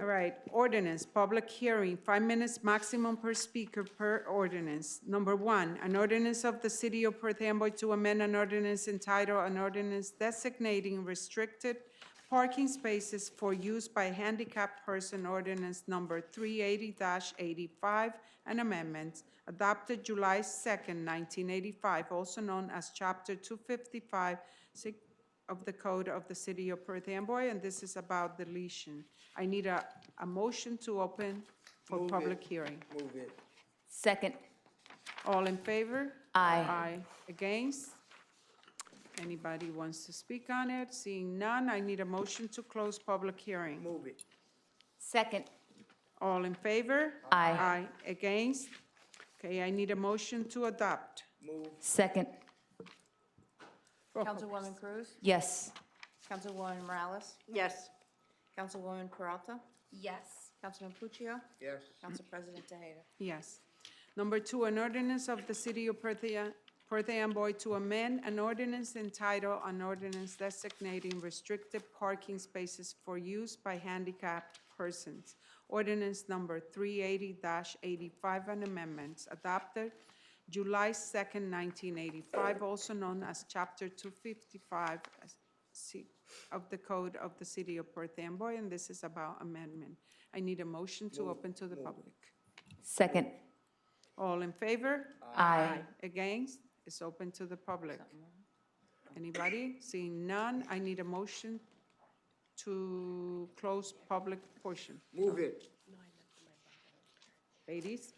All right, ordinance, public hearing, five minutes maximum per speaker per ordinance. Number one, an ordinance of the City of Perth Amboy to amend an ordinance entitled, an ordinance designating restricted parking spaces for use by handicapped person, ordinance number three eighty eighty-five, and amendments, adopted July second, nineteen eighty-five, also known as chapter two fifty-five, of the Code of the City of Perth Amboy, and this is about deletion. I need a, a motion to open for Move it. public hearing. Move it. Second. All in favor? Aye. Aye. Against? Anybody wants to speak on it? Seeing none, I need a motion to close public hearing. Move it. Second. All in favor? Aye. Aye. Against? Okay, I need a motion to adopt. Move. Second. Roll call, Councilwoman Cruz? Yes. Councilwoman Morales? yes, Councilwoman Peralta? Yes. Councilman Puccio? Yes. Council President Tejeda? Yes. Number two, an ordinance of the City of Perth Perth Amboy to amend an ordinance entitled, an ordinance designating restricted parking spaces for use by handicapped persons. Ordinance number 380-85 and amendments adopted July 2nd, 1985, also known as Chapter 255 as- C- of the Code of the City of Perth Amboy, and this is about amendment. I need a motion to open to the public. Second. All in favor? Aye. Against? It's open to the public. Anybody? Seeing none, I need a motion to close public portion. Move it. Ladies,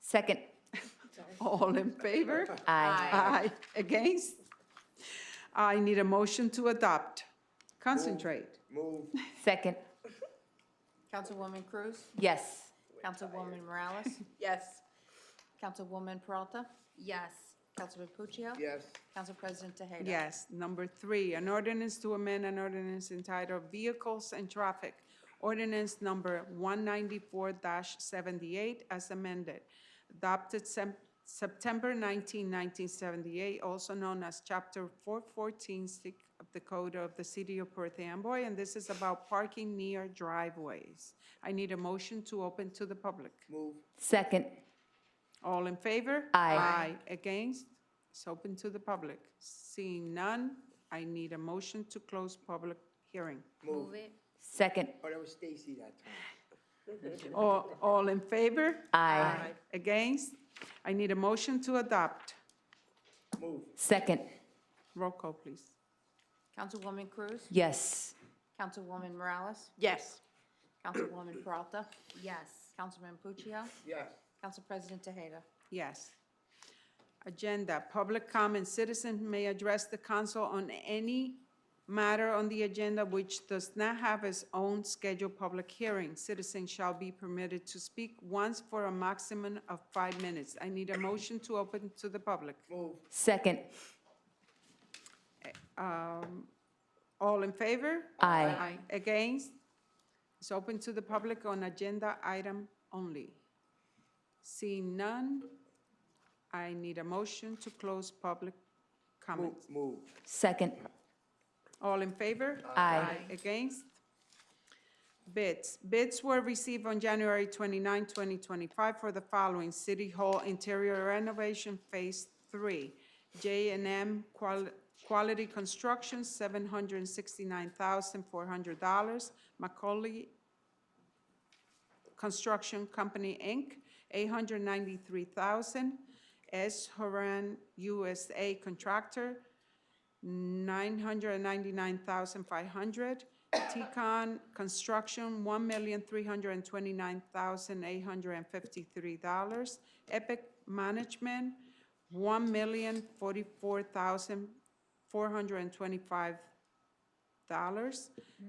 Second. all in favor? Aye. Aye. Against? I need a motion to adopt. Concentrate. Move. Second. Councilwoman Cruz? Yes. Councilwoman Morales? yes, Councilwoman Peralta? Yes. Councilman Puccio? Yes. Council President Tejeda? Yes. Number three, an ordinance to amend an ordinance entitled Vehicles and Traffic, ordinance number one ninety-four seventy-eight as amended, adopted Sep- September 19, 1978, also known as chapter four fourteen of the Code of the City of Perth Amboy, and this is about parking near driveways. I need a motion to open to the public. Move. Second. All in favor? Aye. Aye. Against? It's open to the public. Seeing none, I need a motion to close public hearing. Move. it. Second. Oh, that was Stacy that time. All, all in favor? Aye. Against? I need a motion to adopt. Move. Second. Roll call, please. Councilwoman Cruz? Yes. Councilwoman Morales? yes, Councilwoman Peralta? Yes. Councilman Puccio? Yes. Council President Tejeda? Yes. Agenda, public comment, citizen may address the council on any matter on the agenda which does not have its own scheduled public hearing. Citizen shall be permitted to speak once for a maximum of five minutes. I need a motion to open to the public. Move. Second. Um, All in favor? Aye. Against? It's open to the public on agenda item only. Seeing none, I need a motion to close public Move. comments. Move. Second. All in favor? Aye. Against? Bids. Bids were received on January 29, 2025 for the following: City Hall Interior Renovation Phase 3, j and M Quality Construction, $769,400, Macaulay Construction Company, Inc., $893,000, S. Horan USA Contractor, $999,500. Tecon Construction, $1,329,853. Epic Management, $1,044,425.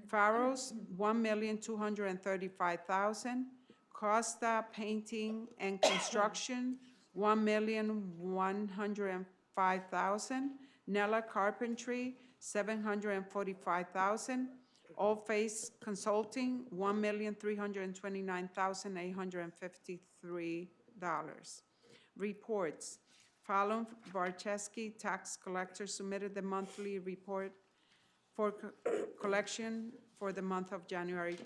Farrows, $1,235,000. Costa Painting and Construction, $1,105,000. Nella Carpentry, $745,000. All Face Consulting, $1,329,853. Reports. Fallon Varcheski, tax collector, submitted the monthly report for co- collection for the month of January